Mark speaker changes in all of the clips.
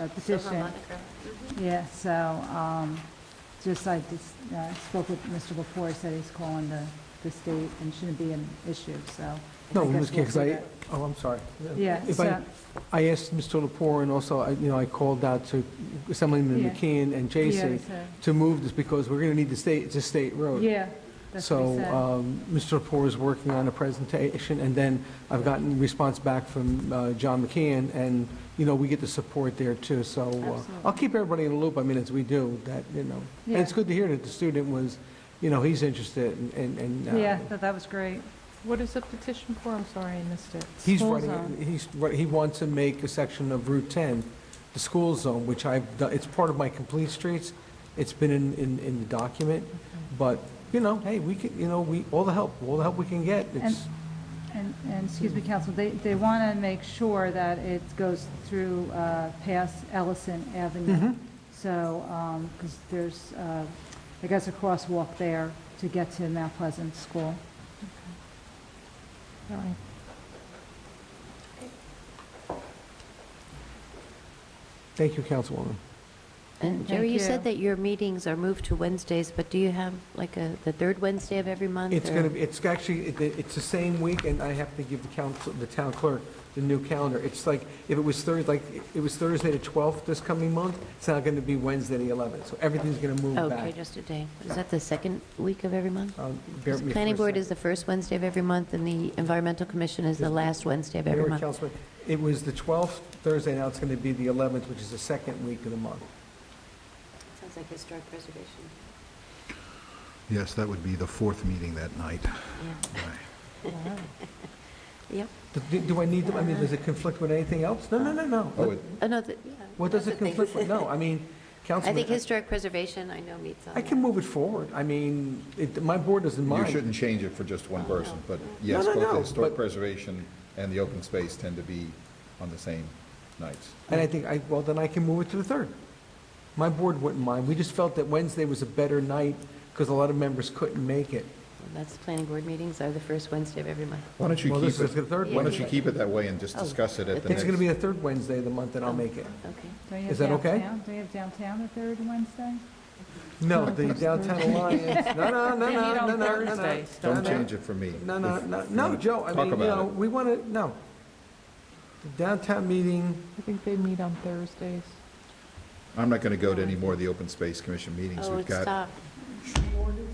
Speaker 1: uh, petition. Yeah, so, um, just I just, uh, spoke with Mr. before, said he's calling the, the state and shouldn't be an issue, so.
Speaker 2: No,
Speaker 1: I guess
Speaker 2: Ms.
Speaker 1: we'll
Speaker 2: King,
Speaker 1: do
Speaker 2: I,
Speaker 1: that.
Speaker 2: oh, I'm sorry.
Speaker 1: Yeah,
Speaker 2: If I,
Speaker 1: so-
Speaker 2: I asked Mr. Lepore, and also, I- you know, I called out to Assemblyman
Speaker 1: Yeah.
Speaker 2: McKeon and
Speaker 1: Yeah,
Speaker 2: Jason
Speaker 1: so-
Speaker 2: to move this, because we're going to need the state, it's a state road.
Speaker 1: Yeah, that's what he
Speaker 2: So
Speaker 1: said.
Speaker 2: um, Mr. Lepore is working on a presentation, and then I've gotten response back from uh, John McCann, and, you know, we get the support there, too. So uh, I'll keep everybody in the loop, I mean, as we do, that, you know. And it's
Speaker 1: Yeah.
Speaker 2: good to hear that the student was, you know, he's interested, and- and, and uh,
Speaker 1: Yeah, that, that was great.
Speaker 3: What is the petition for? I'm sorry, I missed it.
Speaker 2: He's
Speaker 1: School
Speaker 2: running,
Speaker 1: zone.
Speaker 2: he's, ru- he wants to make a section of Route 10, the school zone, which I've, done- it's part of my complete streets. It's been in, in, in the document, but, you know, hey, we can, you know, we, all the help, all the help we can get. It's,
Speaker 1: And, and, excuse me, counsel, they, they want to make sure that it goes through uh, past Ellison
Speaker 2: mm-hmm.
Speaker 1: Avenue. So, because there's, uh, I guess, a crosswalk there to get to Mount Pleasant School.
Speaker 3: All right.
Speaker 2: thank you, Councilwoman.
Speaker 4: And
Speaker 1: Thank
Speaker 4: Jerry, you
Speaker 1: you.
Speaker 4: said that your meetings are moved to Wednesdays, but do you have like a, the third Wednesday of every month?
Speaker 2: It's
Speaker 4: or-
Speaker 2: gonna, be it's actually, it- it's the same week, and I have to give the council, the town clerk, the new calendar. It's like, if it was Thursday, like, it was Thursday the 12th this coming month, it's now gonna be Wednesday the 11th, so everything's gonna move
Speaker 4: Okay,
Speaker 2: back.
Speaker 4: just a day. Is that the second week of every month?
Speaker 2: Um, bear with me for a
Speaker 4: Planning board
Speaker 2: second.
Speaker 4: is the first Wednesday of every month, and the environmental commission is the
Speaker 2: Yes.
Speaker 4: last Wednesday of every
Speaker 2: Mayor,
Speaker 4: month.
Speaker 2: Councilman, it was the 12th Thursday, now it's going to be the 11th, which is the second week of the month.
Speaker 4: Sounds like historic preservation.
Speaker 5: Yes, that would be the fourth meeting that night.
Speaker 4: Yeah,
Speaker 5: Right.
Speaker 4: yep.
Speaker 2: Do- do- Do I need, to- I mean, does it conflict with anything else? No, no, no,
Speaker 5: Oh,
Speaker 2: no.
Speaker 5: it-
Speaker 4: Oh, no, the- yeah.
Speaker 2: What does
Speaker 4: that's
Speaker 2: it
Speaker 4: the thing.
Speaker 2: conflict with? No, I mean,
Speaker 4: I
Speaker 2: Councilman,
Speaker 4: think historic preservation, I know meets on.
Speaker 2: I can move it forward. I mean, it- my board doesn't
Speaker 5: You
Speaker 2: mind.
Speaker 5: shouldn't change it for just one person, but
Speaker 2: No,
Speaker 5: yes,
Speaker 2: no,
Speaker 5: both the
Speaker 2: no,
Speaker 5: historic
Speaker 2: but-
Speaker 5: preservation and the open space tend to be on the same nights.
Speaker 2: And I think, I well, then I can move it to the 3rd. My board wouldn't mind. We just felt that Wednesday was a better night because a lot of members couldn't make it.
Speaker 4: That's, the planning board meetings are the first Wednesday of every month.
Speaker 5: Why don't you
Speaker 2: Well, this
Speaker 5: keep
Speaker 2: is the
Speaker 5: it,
Speaker 2: third
Speaker 5: why don't you
Speaker 2: Wednesday.
Speaker 5: keep it that way and just
Speaker 4: Oh,
Speaker 5: discuss it at the
Speaker 4: but
Speaker 2: It's
Speaker 5: next?
Speaker 2: going to be the third Wednesday of the month, and I'll
Speaker 4: Oh.
Speaker 2: make it.
Speaker 4: Okay.
Speaker 1: Don't you
Speaker 2: Is
Speaker 1: have
Speaker 2: that okay?
Speaker 1: downtown- Do you have downtown the third Wednesday?
Speaker 2: No, the downtown alliance, no, no, no, no,
Speaker 3: They meet
Speaker 2: no,
Speaker 3: on
Speaker 2: no, no, no, no.
Speaker 3: Thursdays,
Speaker 2: no,
Speaker 5: Don't
Speaker 2: no.
Speaker 5: change it for me.
Speaker 2: No, no,
Speaker 5: If-
Speaker 2: no,
Speaker 5: if you
Speaker 2: no,
Speaker 5: wanna
Speaker 2: Joe, I
Speaker 5: talk
Speaker 2: mean, you
Speaker 5: about
Speaker 2: know,
Speaker 5: it.
Speaker 2: we want to, no. The downtown meeting,
Speaker 3: I think they meet on Thursdays.
Speaker 5: I'm not going to go to any more of the open space commission meetings.
Speaker 4: Oh,
Speaker 5: We've
Speaker 4: it
Speaker 5: got,
Speaker 4: stopped.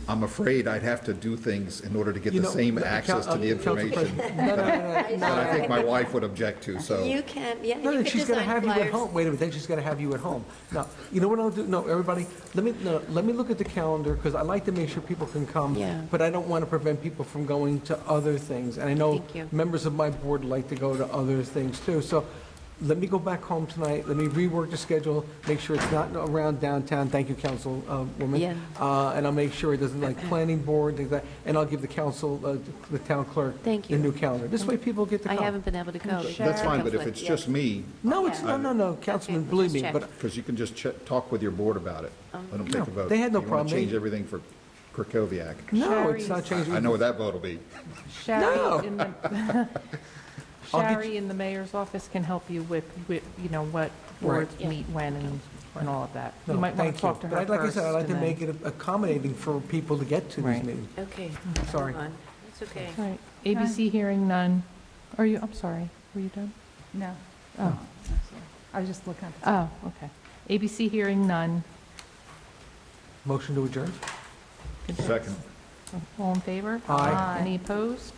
Speaker 5: I'm afraid I'd have to do things in order to get
Speaker 2: you
Speaker 5: the
Speaker 2: know.
Speaker 5: same
Speaker 2: the
Speaker 5: access
Speaker 2: coun-
Speaker 5: to the
Speaker 2: uh, council
Speaker 5: information
Speaker 2: president- No, no, no,
Speaker 5: that I
Speaker 2: no, no.
Speaker 5: think my wife would object to, so.
Speaker 4: You can, yeah,
Speaker 2: No,
Speaker 4: you
Speaker 2: then
Speaker 4: could
Speaker 2: she's going to
Speaker 4: design
Speaker 2: have you at
Speaker 4: flyers.
Speaker 2: home. Wait a minute, then she's going to have you at home. No, you know what I'll do? No, everybody, let me, no, let me look at the calendar, because I like to make sure people can come.
Speaker 4: Yeah.
Speaker 2: But I don't want to prevent people from going to other things. And I know
Speaker 4: Thank you.
Speaker 2: members of my board like to go to other things too. So let me go back home tonight, let me rework the schedule, make sure it's not around downtown. Thank you, Councilwoman.
Speaker 4: Yeah.
Speaker 2: Uh, And I'll make sure it doesn't like planning board, things like, and I'll give the council, uh, the town clerk.
Speaker 4: Thank
Speaker 2: The
Speaker 4: you.
Speaker 2: new calendar. This way people get to
Speaker 4: I
Speaker 2: come.
Speaker 4: haven't been able to go.
Speaker 5: That's fine, but if it's just me,
Speaker 2: No, it's, no, no, no, Councilman, believe me,
Speaker 4: just
Speaker 2: but
Speaker 4: check.
Speaker 5: Because you can just check, talk with your board about it. Let
Speaker 2: No,
Speaker 5: them take a vote.
Speaker 2: they had no
Speaker 5: You
Speaker 2: problem.
Speaker 5: want to change everything for Krakowiak.
Speaker 2: No, it's not changing.
Speaker 5: I know what that vote will be.
Speaker 2: No.
Speaker 3: Shari in the,
Speaker 2: I'll get
Speaker 3: Shari in the mayor's office can help you with, with, you know, what boards
Speaker 4: Yeah.
Speaker 3: meet when and, and all of that. You
Speaker 2: No,
Speaker 3: might want
Speaker 2: thank
Speaker 3: to talk to her
Speaker 2: But I'd- like I said, I'd
Speaker 3: first
Speaker 2: like to
Speaker 3: and then-
Speaker 2: make it accommodating for people to get to these
Speaker 3: Right.
Speaker 2: meetings.
Speaker 4: Okay.
Speaker 2: Sorry.
Speaker 4: hold on. It's okay.
Speaker 3: All right, ABC hearing none. Are you, I'm sorry, were you done?
Speaker 1: No.
Speaker 3: Oh,
Speaker 1: I'm sorry. I was just looking at the
Speaker 3: oh, okay. ABC hearing none.
Speaker 2: Motion to adjourn?
Speaker 5: Second.
Speaker 3: All in favor?
Speaker 2: Aye.
Speaker 1: Aye.
Speaker 3: Any opposed?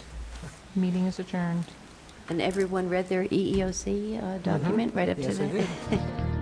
Speaker 3: Meeting is adjourned.
Speaker 4: E And everyone read their EEOC uh, document right up to
Speaker 2: Mm-hmm. Yes, I
Speaker 4: that?
Speaker 2: did.